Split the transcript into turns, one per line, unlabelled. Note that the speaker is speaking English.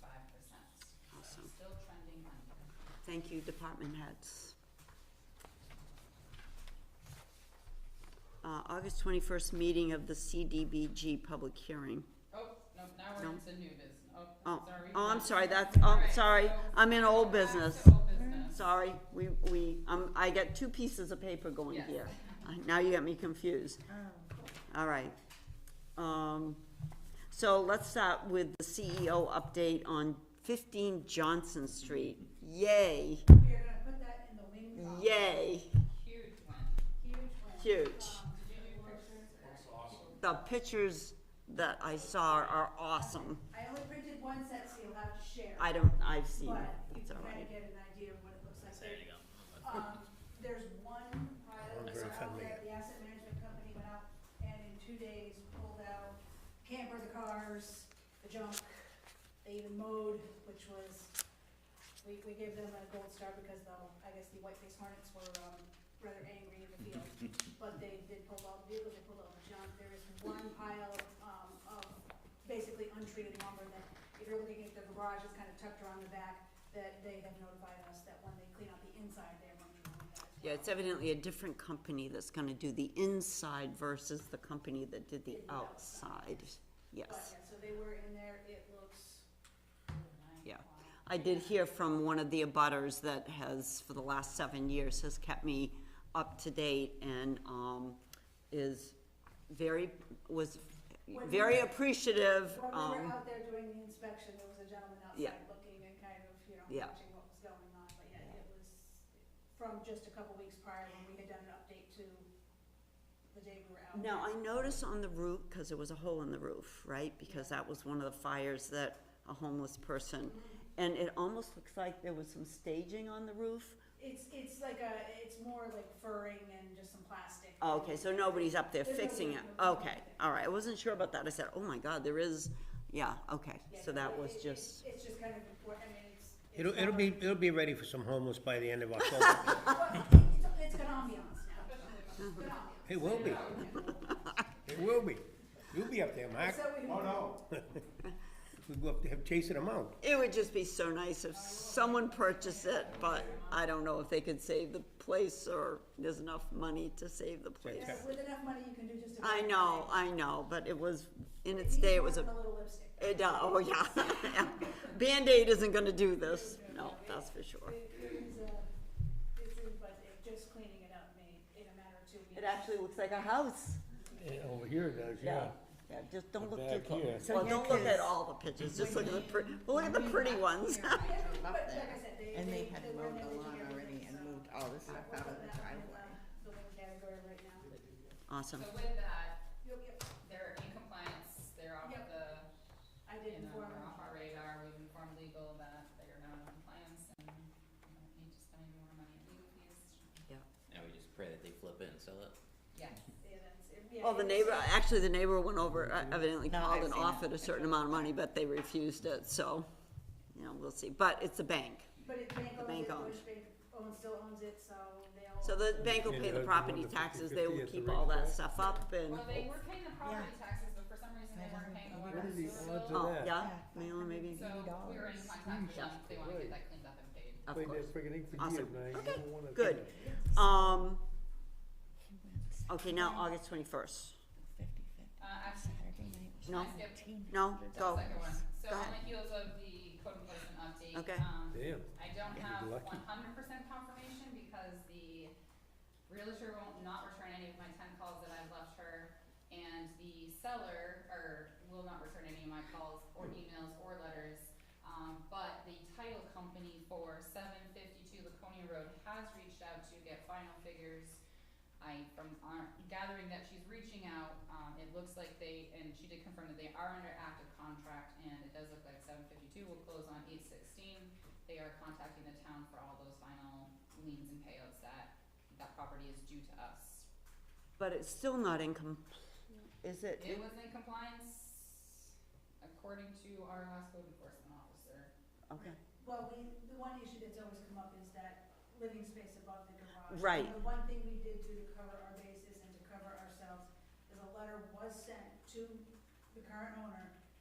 five percent.
Awesome.
Still trending under.
Thank you, department heads. Uh, August twenty-first meeting of the CDBG public hearing.
Oh, no, now
No.
we're into new business. Oh,
Oh,
sorry.
oh, I'm
Mike.
sorry, that's, oh,
Alright,
sorry,
so
I'm in
back
old
to
business.
old business.
Sorry, we, we, um, I got two pieces of paper going
Yes. Oh.
here. Uh, Now you got me confused. All right. Um, so let's start with the CEO update on fifteen Johnson Street. Yay,
We are gonna put that in the wing box.
yay,
Huge one.
Huge one.
huge.
Did you do pictures?
The pictures that I saw are awesome.
I only printed one set, so you'll have to share.
I don't, I've seen it,
But you
it's
can
all
kinda
right.
get an idea of what it looks like. There you go. Um, there's one pilot that went out that the asset management company went out and in two days pulled out camper, the cars, the junk. They even mowed, which was, we, we gave them a gold star because the, I guess the white face hornets were, um, rather angry in the field. But they did pull out vehicles, they pulled out the junk. There is one pile, um, of basically untreated lumber that if you're looking at the garage, it's kind of tucked around the back, that they have notified us that when they clean out the inside, they're going to remove that as well.
Yeah, it's evidently a different company that's gonna do the inside versus the company that did the outside.
But,
Yes,
yeah, so they were in there, it looks,
yeah. I did hear from one of the abutters that has, for the last seven years, has kept me up to date and, um, is very, was
When we
very
were-
appreciative,
when we were
um,
out there doing the inspection, there was a gentleman
Yeah.
outside looking and kind of, you know,
Yeah.
watching what was going on, but yeah, it was from just a couple weeks prior when we had done an update to the day we were out.
Now, I noticed on the roof, because there was a hole in the roof, right? Because that was one of the fires that a homeless person, and it almost looks like there was some staging on the roof.
It's, it's like a, it's more like furring and just some plastic.
Oh, Okay, so nobody's up there
There's
fixing it.
nobody- nobody
Okay,
up there.
all right, I wasn't sure about that. I said, oh my God, there is, yeah, okay.
Yeah,
So that
it-
was
it-
just,
It's just kind of important, I mean, it's. it's
It'll, it'll
not-
be, it'll be ready for some homeless by the end of October.
Well, it's- It's got ambiance now. Good ambiance.
It will be. It will be. You'll be up there, Mark.
So we can-
We go up there chasing them out.
it would just be so nice if someone purchased it, but I don't know if they could save the place or there's enough money to save the place.
yeah, uh, With enough money, you can do just about.
I know,
anything.
I know, but it was, in
It
its
needs
day, it
more
was a
than little lipstick.
It, uh, oh, yeah. Band-Aid isn't gonna do this. No, that's for sure.
It it is, uh, it's, in- but it- just cleaning it up made, in a matter of two weeks.
It actually looks like a house.
Over here it does,
Yeah, just don't look too
Back here.
close. Well, don't look at all the pictures, just look at the pretty, well, look at the pretty ones.
Yeah,
drove
but
up
like
there,
I said, they-
and
they-
they had
they were
mowed the
managing
lawn
everything,
already
so
and moved all the
we'll
stuff
put
out of
that in
the driveway.
Building category right now.
Awesome.
So with that,
You'll get-
they're in compliance, they're off
Yep.
the,
I did
you know,
inform
they're
them.
off our radar, we've informed legal that they are not in compliance and we don't need to spend any more money on legal fees.
Now we just pray that they flip it and sell it.
Yeah,
Yeah, that's it. Yeah,
Well, the
it was-
neighbor, actually, the neighbor went over, uh, evidently
No,
called
I've
and
seen it.
offered a certain amount of money, but they refused it, so, you know, we'll see. But it's a bank,
But it, bank
The
owns
bank
it,
owns.
Deutsche Bank owns, still owns it, so they all.
so the bank will pay the property taxes, they will keep all that stuff up and,
well, they were paying the property taxes, but for some reason they
That
weren't
doesn't
paying the
make
water
any
and sewer
sense.
bill.
oh, yeah,
Yeah.
Mila, maybe,
So we were in contact with them,
Mm,
they wanna get that cleaned up and paid.
of course. Awesome. Okay,
wanna
good. Um, okay, now August twenty-first.
Uh, actually,
No.
I skipped
No,
the
go.
second one, so
Go
on
ahead.
the heels of the code enforcement update,
Okay.
um,
Damn.
I don't
You're
have
lucky.
one hundred percent confirmation because the realtor won't not return any of my ten calls that I've left her. And the seller, or will not return any of my calls or emails or letters. Um, but the title company for seven fifty-two Laconia Road has reached out to get final figures. I, from our gathering that she's reaching out, um, it looks like they, and she did confirm that they are under active contract and it does look like seven fifty-two will close on eight sixteen they are contacting the town for all those final liens and payouts that that property is due to us.
But it's still not in com- is it?
It was in compliance according to our last code enforcement officer.
Okay,
Well, we, the one issue that's always come up is that living space above the garage.
Right.
And the one thing we did do to cover our bases and to cover ourselves is a letter was sent to the current owner